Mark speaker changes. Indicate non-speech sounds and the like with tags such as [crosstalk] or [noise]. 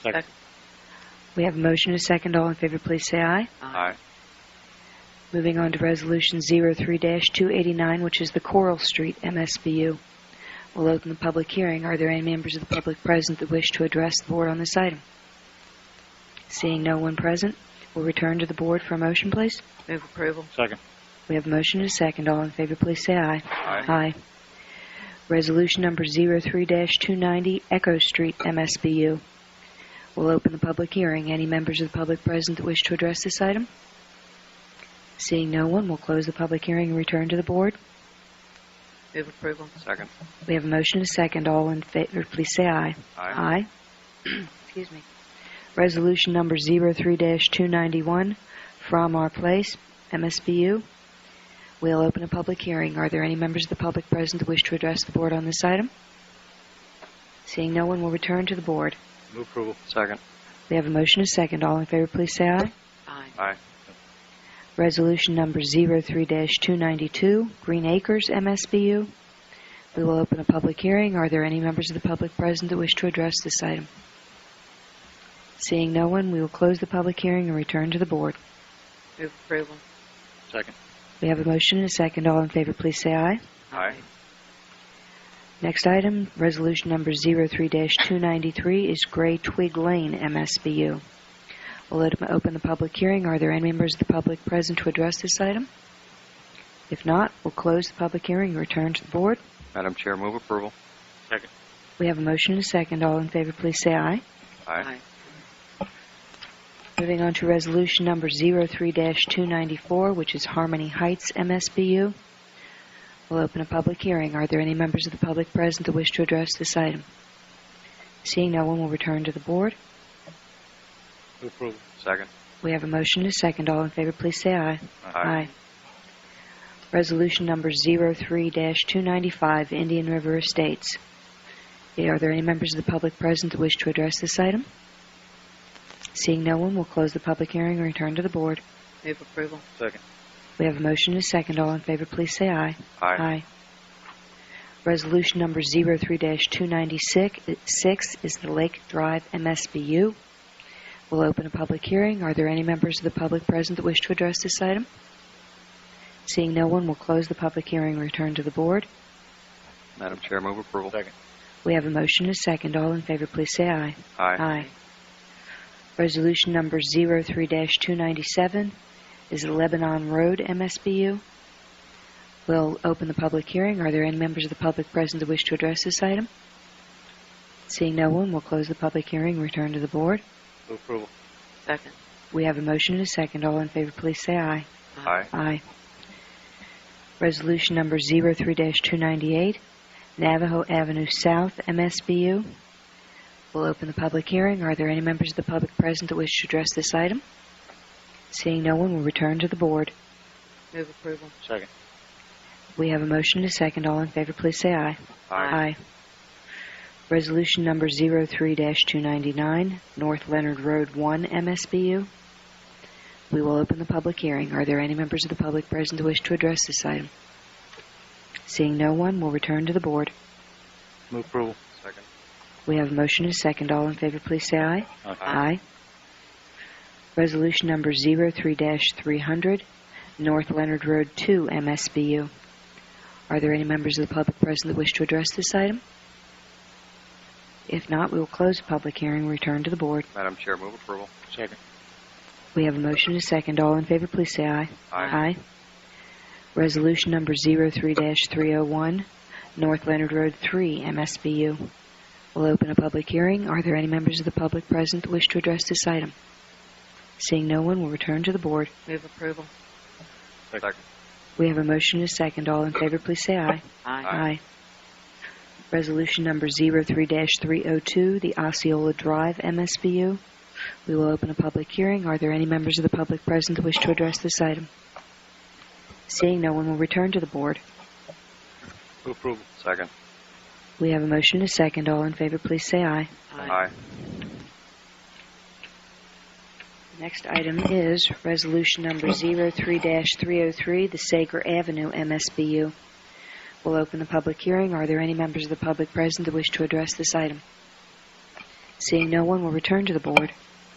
Speaker 1: Second.
Speaker 2: We have a motion and a second. All in favor, please say aye.
Speaker 1: Aye.
Speaker 2: Moving on to Resolution 03-289, which is the Coral Street MSBU. We'll open the public hearing. Are there any members of the public present that wish to address the board on this item? Seeing no one present, we'll return to the board for a motion, please.
Speaker 3: Move approval.
Speaker 1: Second.
Speaker 2: We have a motion and a second. All in favor, please say aye.
Speaker 1: Aye.
Speaker 2: Aye. Resolution number 03-290, Echo Street, MSBU. We'll open the public hearing. Any members of the public present that wish to address this item? Seeing no one, we'll close the public hearing and return to the board.
Speaker 3: Move approval.
Speaker 1: Second.
Speaker 2: We have a motion and a second. All in favor, please say aye. [clears throat]
Speaker 1: Aye.
Speaker 2: Excuse me. Resolution number 03-291, From Our Place, MSBU. We'll open a public hearing. Are there any members of the public present that wish to address the board on this item? Seeing no one, we'll return to the board.
Speaker 1: Move approval. Second.
Speaker 2: We have a motion and a second. All in favor, please say aye.
Speaker 3: Aye.
Speaker 1: Aye.
Speaker 2: Resolution number 03-292, Green Acres, MSBU. We will open a public hearing. Are there any members of the public present that wish to address this item? Seeing no one, we will close the public hearing and return to the board.
Speaker 3: Move approval.
Speaker 1: Second.
Speaker 2: We have a motion and a second. All in favor, please say aye.
Speaker 1: Aye.
Speaker 2: Next item, resolution number 03-293 is Gray Twig Lane, MSBU. We'll let them open the public hearing. Are there any members of the public present to address this item? If not, we'll close the public hearing and return to the board.
Speaker 1: Madam Chair, move approval. Second.
Speaker 2: We have a motion and a second. All in favor, please say aye.
Speaker 1: Aye.
Speaker 2: Moving on to resolution number 03-294, which is Harmony Heights MSBU. We'll open a public hearing. Are there any members of the public present that wish to address this item? Seeing no one, we'll return to the board.
Speaker 1: Move approval. Second.
Speaker 2: We have a motion and a second. All in favor, please say aye. Resolution number 03-295, Indian River Estates. Are there any members of the public present that wish to address this item? Seeing no one, we'll close the public hearing and return to the board.
Speaker 3: Move approval.
Speaker 1: Second.
Speaker 2: We have a motion and a second. All in favor, please say aye.
Speaker 1: Aye.
Speaker 2: Resolution number 03-296 six is the Lake Drive MSBU. We'll open a public hearing. Are there any members of the public present that wish to address this item? Seeing no one, we'll close the public hearing and return to the board.
Speaker 1: Madam Chair, move approval. Second.
Speaker 2: We have a motion and a second. All in favor, please say aye.
Speaker 1: Aye.
Speaker 2: Resolution number 03-297 is the Lebanon Road MSBU. We'll open the public hearing. Are there any members of the public present that wish to address this item? Seeing no one, we'll close the public hearing and return to the board.
Speaker 1: Move approval.
Speaker 3: Second.
Speaker 2: We have a motion and a second. All in favor, please say aye.
Speaker 1: Aye.
Speaker 2: Aye. Resolution number 03-298, Navajo Avenue South, MSBU. We'll open the public hearing. Are there any members of the public present that wish to address this item? Seeing no one, we'll return to the board.
Speaker 3: Move approval.
Speaker 1: Second.
Speaker 2: We have a motion and a second. All in favor, please say aye. Aye. Resolution number 03-299, North Leonard Road 1, MSBU. We will open the public hearing. Are there any members of the public present who wish to address this item? Seeing no one, we'll return to the board.
Speaker 1: Move approval. Second.
Speaker 2: We have a motion and a second. All in favor, please say aye. Aye. Resolution number 03-300, North Leonard Road 2, MSBU. Are there any members of the public present that wish to address this item? If not, we will close the public hearing and return to the board.
Speaker 1: Madam Chair, move approval. Second.
Speaker 2: We have a motion and a second. All in favor, please say aye. Aye. Resolution number 03-301, North Leonard Road 3, MSBU. We'll open a public hearing. Are there any members of the public present that wish to address this item? Seeing no one, we'll return to the board.
Speaker 3: Move approval.
Speaker 1: Second.
Speaker 2: We have a motion and a second. All in favor, please say aye.
Speaker 1: Aye.
Speaker 3: Aye.
Speaker 2: Aye. Resolution number 03-302, the Osceola Drive MSBU. We will open a public hearing. Are there any members of the public present that wish to address this item? Seeing no one, we'll return to the board.
Speaker 1: Move approval. Second.
Speaker 2: We have a motion and a second. All in favor, please say aye.
Speaker 1: Aye.
Speaker 2: The Next item is Resolution Number 03-303, the Sager Avenue MSBU. We'll open the public hearing. Are there any members of the public present that wish to address this item? Seeing no one, we'll return to the board.